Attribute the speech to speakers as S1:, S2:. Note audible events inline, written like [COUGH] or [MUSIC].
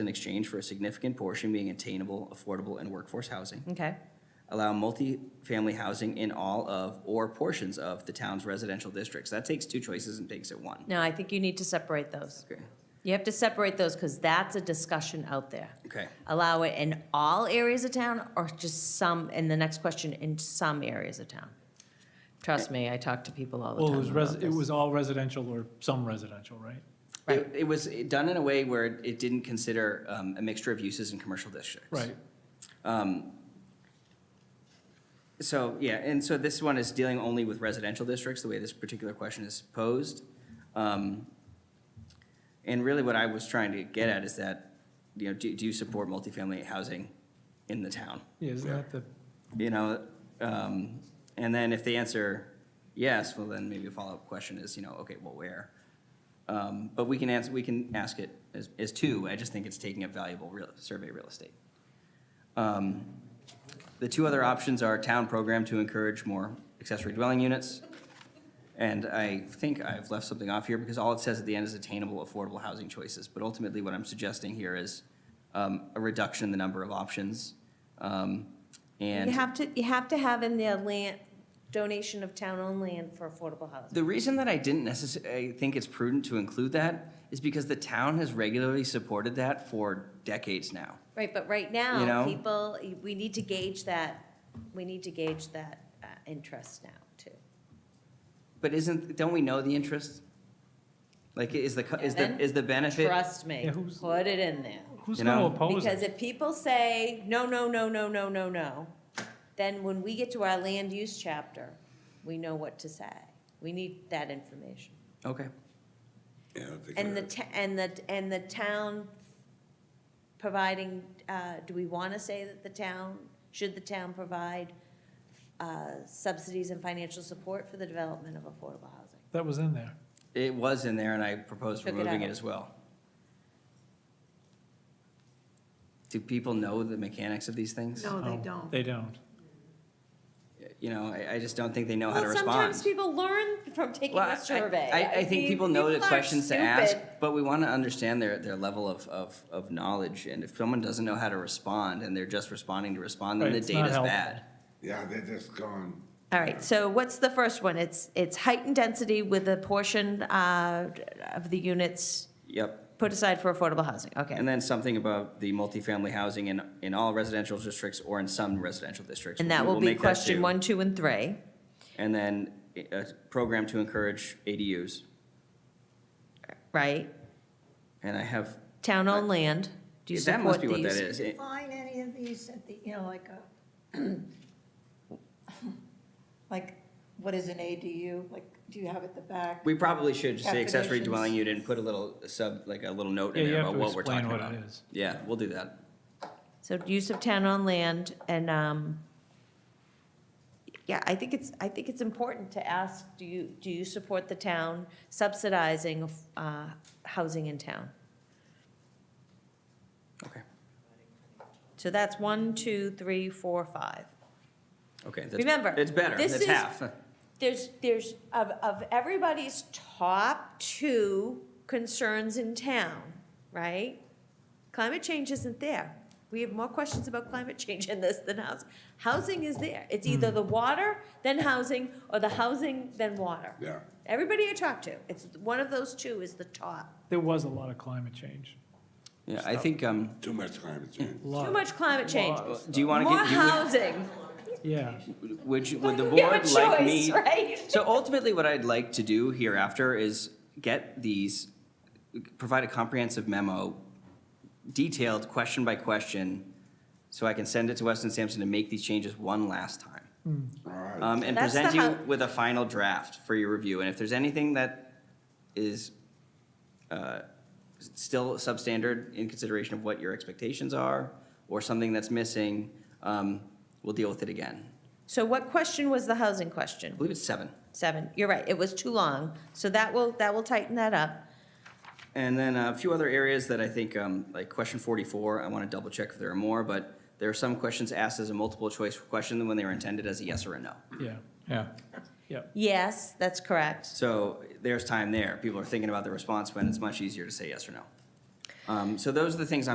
S1: in exchange for a significant portion being attainable, affordable, and workforce housing.
S2: Okay,
S1: Allow multifamily housing in all of or portions of the town's residential districts. That takes two choices and makes it one.
S2: no, I think you need to separate those.
S1: Okay.
S2: You have to separate those because that's a discussion out there.
S1: Okay,
S2: Allow it in all areas of town or just some, and the next question, in some areas of town? Trust me, I talk to people all the
S3: Well, it
S2: time
S3: was,
S2: about
S3: res- it
S2: this.
S3: was all residential or some residential, right?
S1: it, it was done in a way where it didn't consider um, a mixture of uses in commercial districts.
S3: Right.
S1: So, yeah, and so this one is dealing only with residential districts, the way this particular question is posed. Um, And really what I was trying to get at is that, you know, do, do you support multifamily housing in the town?
S3: Yeah, isn't that the,
S1: You know, um, and then if they answer yes, well, then maybe a follow-up question is, you know, okay, well, where? Um, But we can answer, we can ask it as, as two, I just think it's taking up valuable real, survey real estate. Um, The two other options are town program to encourage more accessory dwelling units. And I think I've left something off here because all it says at the end is attainable, affordable housing choices. But ultimately, what I'm suggesting here is um, a reduction in the number of options. um, And.
S2: You have to, you have to have in there land, donation of town-owned land for affordable housing.
S1: The reason that I didn't necessarily think it's prudent to include that is because the town has regularly supported that for decades now.
S2: Right, but right
S1: You
S2: now,
S1: know?
S2: people, we need to gauge that, we need to gauge that uh, interest now, too.
S1: But isn't, don't we know the interest? Like, is the, co- is the,
S2: Evan?
S1: is the benefit?
S2: Trust me,
S3: Yeah, who's-
S2: put it in there.
S3: who's
S1: You
S3: going to
S1: know?
S3: oppose
S2: Because
S3: it?
S2: if people say, no, no, no, no, no, no, no, then when we get to our land use chapter, we know what to say. We need that information.
S1: Okay,
S4: Yeah, I don't think
S2: And the,
S4: we're-
S2: t- and the, and the town providing, uh, do we want to say that the town, should the town provide uh, subsidies and financial support for the development of affordable housing?
S3: That was in there.
S1: it was in there and I proposed
S2: Took it
S1: removing it
S2: out.
S1: as well. Do people know the mechanics of these things?
S5: No, they
S3: Oh,
S5: don't.
S3: They don't.
S1: You know, I, I just don't think they know how to
S2: Well,
S1: respond.
S2: sometimes people learn from taking
S1: Well, I-
S2: a survey.
S1: I, I think
S2: mean,
S1: people know the
S2: are
S1: questions to ask,
S2: stupid.
S1: but we want to understand their, their level of, of, of knowledge. And if someone doesn't know how to respond and they're just responding to respond, then
S3: Right,
S1: the
S3: it's not
S1: data's
S3: helpful.
S1: bad.
S4: Yeah, they're just gone.
S2: All right, so what's the first one? It's, it's height and density with a portion uh, of the units
S1: Yep.
S2: put aside for affordable housing, okay.
S1: And then something about the multifamily housing in, in all residential districts or in some residential districts.
S2: And that
S1: We
S2: will be
S1: make
S2: question
S1: two.
S2: one, two, and three.
S1: And then a program to encourage ADUs.
S2: right?
S1: And I have,
S2: Town-owned land, do you
S1: that
S2: support
S1: must be what
S2: these?
S1: that is. It-
S5: Find any of these at the, you know, like a, [CLEARS THROAT] like, what is an ADU? Like, do you have at the back?
S1: We probably should just say accessory
S5: Definitions.
S1: dwelling unit and put a little sub, like a little note
S3: Yeah,
S1: in
S3: you
S1: there
S3: have
S1: about
S3: to
S1: what we're
S3: explain
S1: talking
S3: what
S1: about.
S3: it is.
S1: Yeah, we'll do that.
S2: So use of town-owned land and, um, yeah, I think it's, I think it's important to ask, do you, do you support the town subsidizing, uh, housing in town?
S1: Okay,
S2: So that's one, two, three, four, five.
S1: okay. that's-
S2: Remember,
S1: It's better,
S2: this
S1: it's
S2: is-
S1: half.
S2: There's, there's, of, of everybody's top two concerns in town, right? Climate change isn't there. We have more questions about climate change in this than housing. Housing is there. It's
S1: Hmm.
S2: either the water, then housing, or the housing, then water.
S4: Yeah.
S2: Everybody I talk to, it's, one of those two is the top.
S3: There was a lot of climate change.
S1: Yeah, I think, um,
S4: Too much climate change.
S3: Lot.
S2: Too much climate change.
S1: do you want to
S2: More
S1: get, do
S2: housing.
S3: Yeah.
S1: you- would you, [LAUGHS]
S2: [LAUGHS]
S1: would the
S2: You have a
S1: board like
S2: choice,
S1: me?
S2: Right?
S1: So ultimately, what I'd like to do hereafter is get these, provide a comprehensive memo, detailed, question by question, so I can send it to Weston Sampson to make these changes one last time.
S4: All right.
S1: Um, and
S2: That's the
S1: present you
S2: how-
S1: with a final draft for your review. And if there's anything that is, uh, still substandard in consideration of what your expectations are, or something that's missing, um, we'll deal with it again.
S2: So what question was the housing question?
S1: I believe it's seven.
S2: Seven, you're right, it was too long, so that will, that will tighten that up.
S1: And then a few other areas that I think, um, like question forty-four, I want to double check if there are more, but there are some questions asked as a multiple choice question when they were intended as a yes or a no.
S3: Yeah. Yeah. Yeah.
S2: Yes, that's correct.
S1: So there's time there. People are thinking about the response when it's much easier to say yes or no. Um, so those are the things